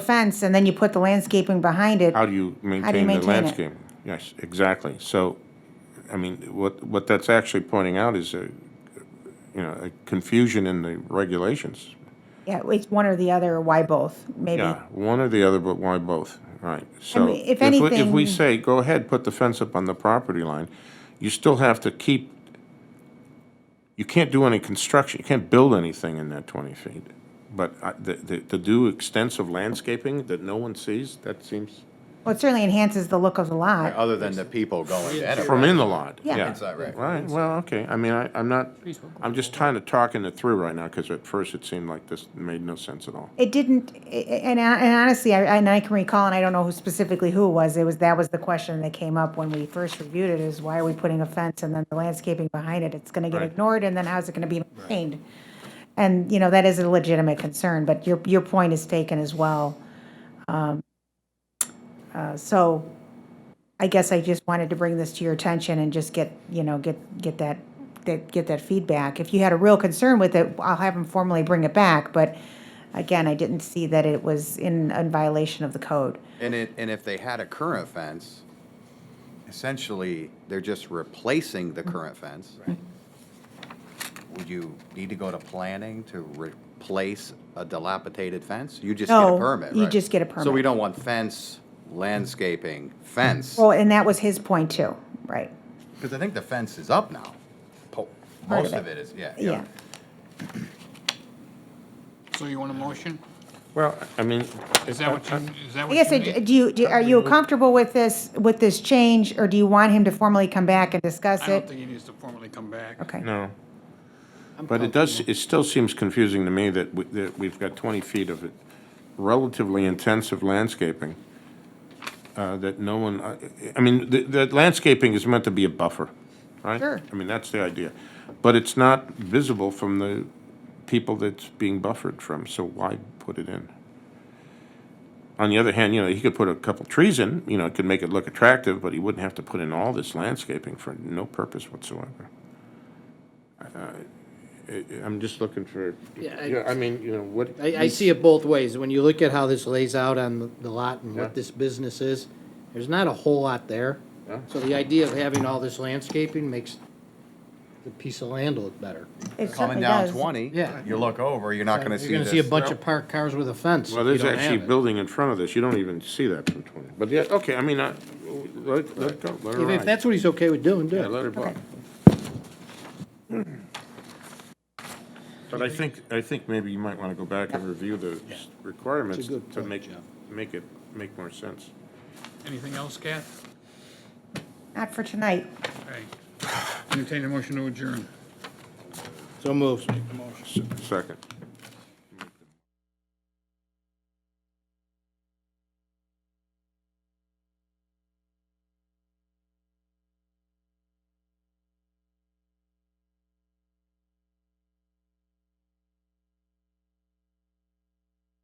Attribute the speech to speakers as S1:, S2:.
S1: fence and then you put the landscaping behind it.
S2: How do you maintain the
S1: maintain it?
S2: landscape? Yes, exactly. So, I mean, what, what that's actually pointing out is a, you know, a confusion in the regulations.
S1: Yeah, it's one or the other, or why both, maybe.
S2: Yeah, one or the other, but why both? Right, so.
S1: mean, if
S2: we- If we
S1: anything-
S2: say, go ahead, put the fence up on the property line, you still have to keep, you can't do any construction, you can't build anything in that twenty feet. But uh, the, the, to do extensive landscaping that no one sees, that seems,
S1: Well, it certainly enhances the look of the
S2: uh,
S1: lot.
S3: Other than the people going to
S2: from
S3: enter.
S2: in the lot,
S1: Yeah.
S2: yeah.
S3: Inside, right.
S2: Right, well, okay, I mean, I, I'm not, I'm just trying to talking it through right now, because at first it seemed like this made no sense at all.
S1: It didn't, i- i- and I- and honestly, I- and I can recall, and I don't know who specifically who it was, it was, that was the question that came up when we first reviewed it, is why are we putting a fence and then the landscaping behind it? It's gonna get
S2: Right.
S1: ignored, and then how's it gonna be maintained? And, you know, that is a legitimate concern, but your, your point is taken as well. Um, uh, So I guess I just wanted to bring this to your attention and just get, you know, get, get that, that, get that feedback. If you had a real concern with it, I'll have him formally bring it back, but again, I didn't see that it was in, in violation of the code.
S3: And it, and if they had a current fence, essentially, they're just replacing the current fence. Would you need to go to planning to replace a dilapidated fence? You just get
S1: No,
S3: a permit,
S1: you
S3: right?
S1: just get a
S3: So we
S1: permit.
S3: don't want fence, landscaping, fence.
S1: Well, and that was his point too, right?
S3: Because I think the fence is up now. Po-
S1: Part
S3: Most
S1: of
S3: of it is, yeah.
S1: Yeah.
S4: So you want a motion?
S2: Well, I mean.
S4: Is
S2: Uh,
S4: that what you, is that
S1: I
S4: what
S1: guess,
S4: you
S1: I-
S4: need?
S1: do you, do- are you comfortable with this, with this change, or do you want him to formally come back and discuss
S4: I don't
S1: it?
S4: think he needs to formally come back.
S1: Okay,
S2: No. But it does, it still seems confusing to me that, we- that we've got 20 feet of it relatively intensive landscaping uh, that no one, I- I mean, the, the landscaping is meant to be a buffer, right?
S1: Sure.
S2: I mean, that's the idea. But it's not visible from the people that's being buffered from, so why put it in? On the other hand, you know, he could put a couple trees in, you know, it could make it look attractive, but he wouldn't have to put in all this landscaping for no purpose whatsoever. Uh, I'm just looking for,
S5: Yeah, I-
S2: yeah, I mean, you know, what.
S5: I, I see it both ways. When you look at how this lays out on the- the lot and
S2: Yeah.
S5: what this business is, there's not a whole lot there.
S2: Yeah.
S5: So the idea of having all this landscaping makes the piece of land look better.
S1: it certainly
S3: Coming down
S1: does.
S3: 20,
S5: Yeah.
S3: you look over, you're not going to see this.
S5: You're gonna see a bunch of parked cars with a fence.
S2: Well,
S5: if you
S2: there's
S5: don't have
S2: actually a
S5: it.
S2: building in front of this, you don't even see that from twenty, but yeah, okay, I mean, I, let, let it go, let her
S5: If, if
S2: ride.
S5: that's what he's okay with doing, do
S2: Yeah,
S5: it.
S2: let her go. But I think, I think maybe you might wanna go back and review the s- requirements
S5: good
S2: to
S5: point,
S2: make,
S5: Jeff.
S2: make it, make more sense.
S4: Anything else, Kath?
S1: Not for tonight.
S4: All right. Entertain a motion to adjourn.
S5: So moves.
S2: S- Second.